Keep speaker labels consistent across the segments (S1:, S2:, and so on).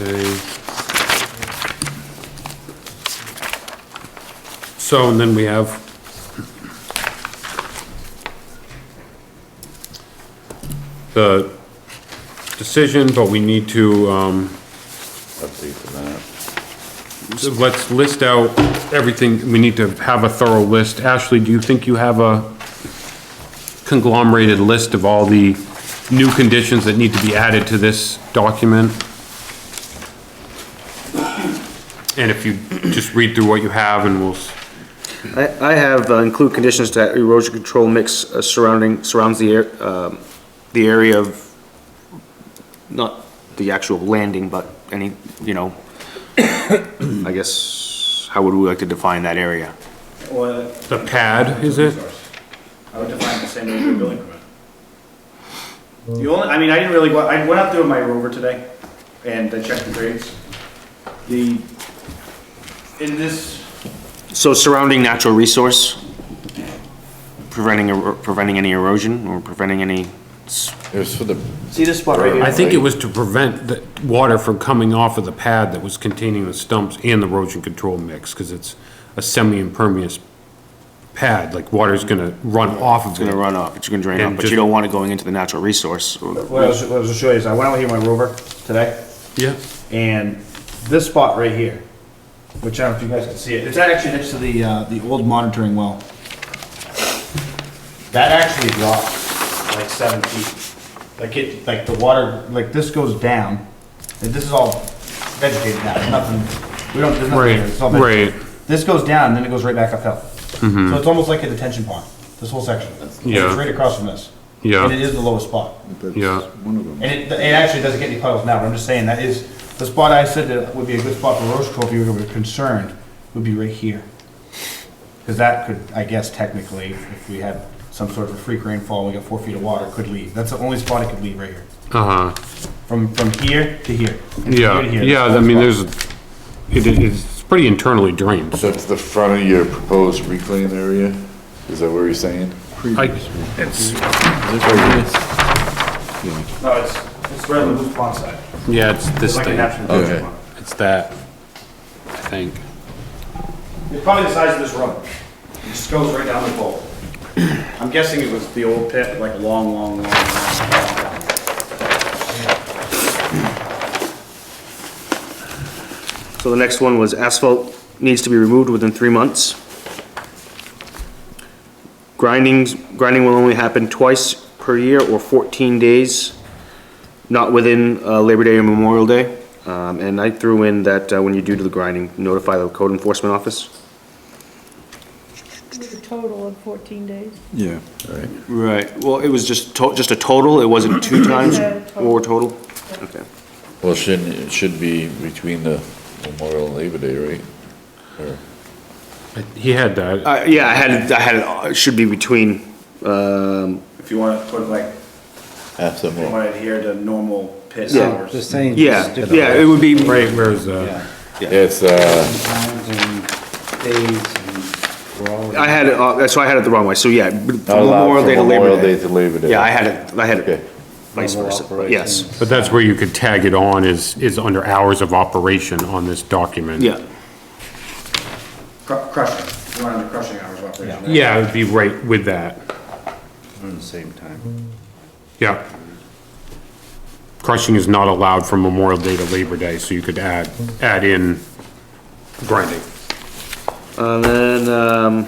S1: Okay. So, and then we have. The decision, but we need to, um,
S2: update the map.
S1: so let's list out everything, we need to have a thorough list. Ashley, do you think you have a conglomerated list of all the new conditions that need to be added to this document? And if you just read through what you have and we'll, s-
S3: I, I have uh, include conditions that erosion control mix uh, surrounding, surrounds the, air- um, the area of, not the actual landing, but any, you know, I guess, how would we like to define that area?
S4: Or
S1: the pad, is it?
S4: I would define the same as your building permit. The only, I mean, I didn't really, go- I went out there with my rover today and I checked the grades. The, in this,
S3: So surrounding natural resource, preventing, ero- preventing any erosion or preventing any, s-
S2: It was for the,
S5: See this spot right
S1: I
S5: here?
S1: think it was to prevent the water from coming off of the pad that was containing the stumps and the erosion control mix, because it's a semi-impermeable pad, like water's gonna run off of
S3: gonna
S1: it.
S3: run off, it's gonna drain
S1: And
S3: off, but
S1: just-
S3: you don't want it going into the natural resource. or-
S4: what I was, what I was gonna show you is I went out here with my rover today
S1: Yeah,
S4: and this spot right here, which I don't know if you guys can see it, it's actually next to the, uh, the old monitoring well. That actually dropped like seven feet. Like it, like the water, like this goes down, and this is all vegetated now, nothing, we don't, there's nothing.
S1: Right,
S4: here, it's all vegetated.
S1: right. Mm-hmm.
S4: This goes down, and then it goes right back uphill. So it's almost like a detention pond, this whole section.
S1: Yeah.
S4: It's right across from this.
S1: Yeah.
S4: And it is the lowest spot.
S1: yeah.
S4: And it, it actually doesn't get any puddles now, but I'm just saying that is, the spot I said that would be a good spot for roach control if you were concerned, would be right here. Cause that could, I guess technically, if we had some sort of a freak rainfall, we got four feet of water, could leave. That's the only spot it could leave right here.
S1: Uh-huh,
S4: From, from here to here. and from
S1: yeah,
S4: here to here,
S1: yeah,
S4: that's
S1: I mean,
S4: the
S1: there's,
S4: spot.
S1: it, it's pretty internally drained.
S2: so it's the front of your proposed reclaim area? Is that what you're saying?
S1: I, it's,
S4: No, it's, it's right on the roof pond side.
S1: yeah, it's this
S4: Like a
S1: thing,
S4: natural
S2: Okay.
S4: detention pond.
S1: it's that, I think.
S4: It's probably the size of this room. It just goes right down the bowl. I'm guessing it was the old pit, like a long, long, long, long, long.
S3: So the next one was asphalt needs to be removed within three months. Grindings, grinding will only happen twice per year or 14 days, not within uh, Labor Day or Memorial Day. Um, And I threw in that uh, when you do the grinding, notify the code enforcement office.
S6: It was a total of 14 days.
S2: Yeah. Right.
S3: Right, well, it was just, to- just a total, it wasn't two times
S6: Yeah, total.
S3: or total? Okay.
S2: Well, shouldn't, it should be between the Memorial and Labor Day, right? Or-
S1: He had that,
S3: Uh, Yeah, I had, it- I had, it, uh, it should be between, um,
S4: If you want to put like,
S2: After
S4: you
S2: more,
S4: want to adhere to normal pit
S3: Yeah,
S4: hours.
S7: The same.
S3: yeah, yeah, it would be,
S1: right, where's, uh,
S2: it's, uh,
S7: Times and days and we're all.
S3: I had, it, uh, that's why I had it the wrong way, so yeah.
S2: not allowed
S3: Memorial
S2: from
S3: Day to Labor
S2: Memorial
S3: Day.
S2: Day to Labor Day.
S3: Yeah, I had it, I had
S2: Okay.
S3: it vice versa, but yes,
S1: but that's where you could tag it on is, is under hours of operation on this document.
S3: yeah.
S4: Cru- Crushing, you want under crushing hours of operation. right?
S1: Yeah, it'd be right with that.
S7: Around the same time.
S1: Yeah. Crushing is not allowed from Memorial Day to Labor Day, so you could add, add in grinding.
S3: And then, um,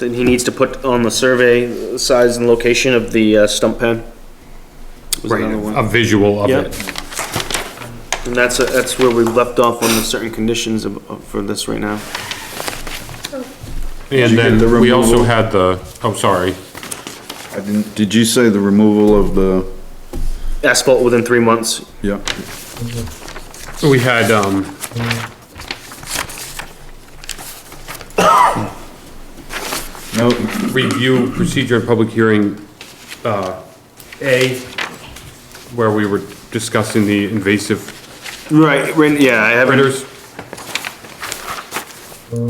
S3: then he needs to put on the survey the size and location of the uh, stump pad. Was
S1: Right,
S3: another one.
S1: a visual of
S3: Yep.
S1: it.
S3: And that's, uh, that's where we left off on the certain conditions of, of- for this right now.
S1: And then we also had the, oh, sorry,
S8: I didn't, did you say the removal of the,
S3: Asphalt within three months,
S8: yeah,
S1: we had, um,
S8: no,
S1: review procedure and public hearing, uh, A, where we were discussing the invasive
S3: Right, right, yeah, I haven't,
S1: critters,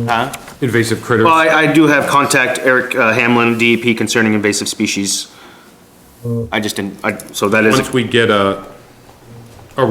S3: huh?
S1: invasive critters.
S3: Well, I, I do have contact Eric uh, Hamlin, DEP concerning invasive species. I just didn't, I, so that is,
S1: Once we get a,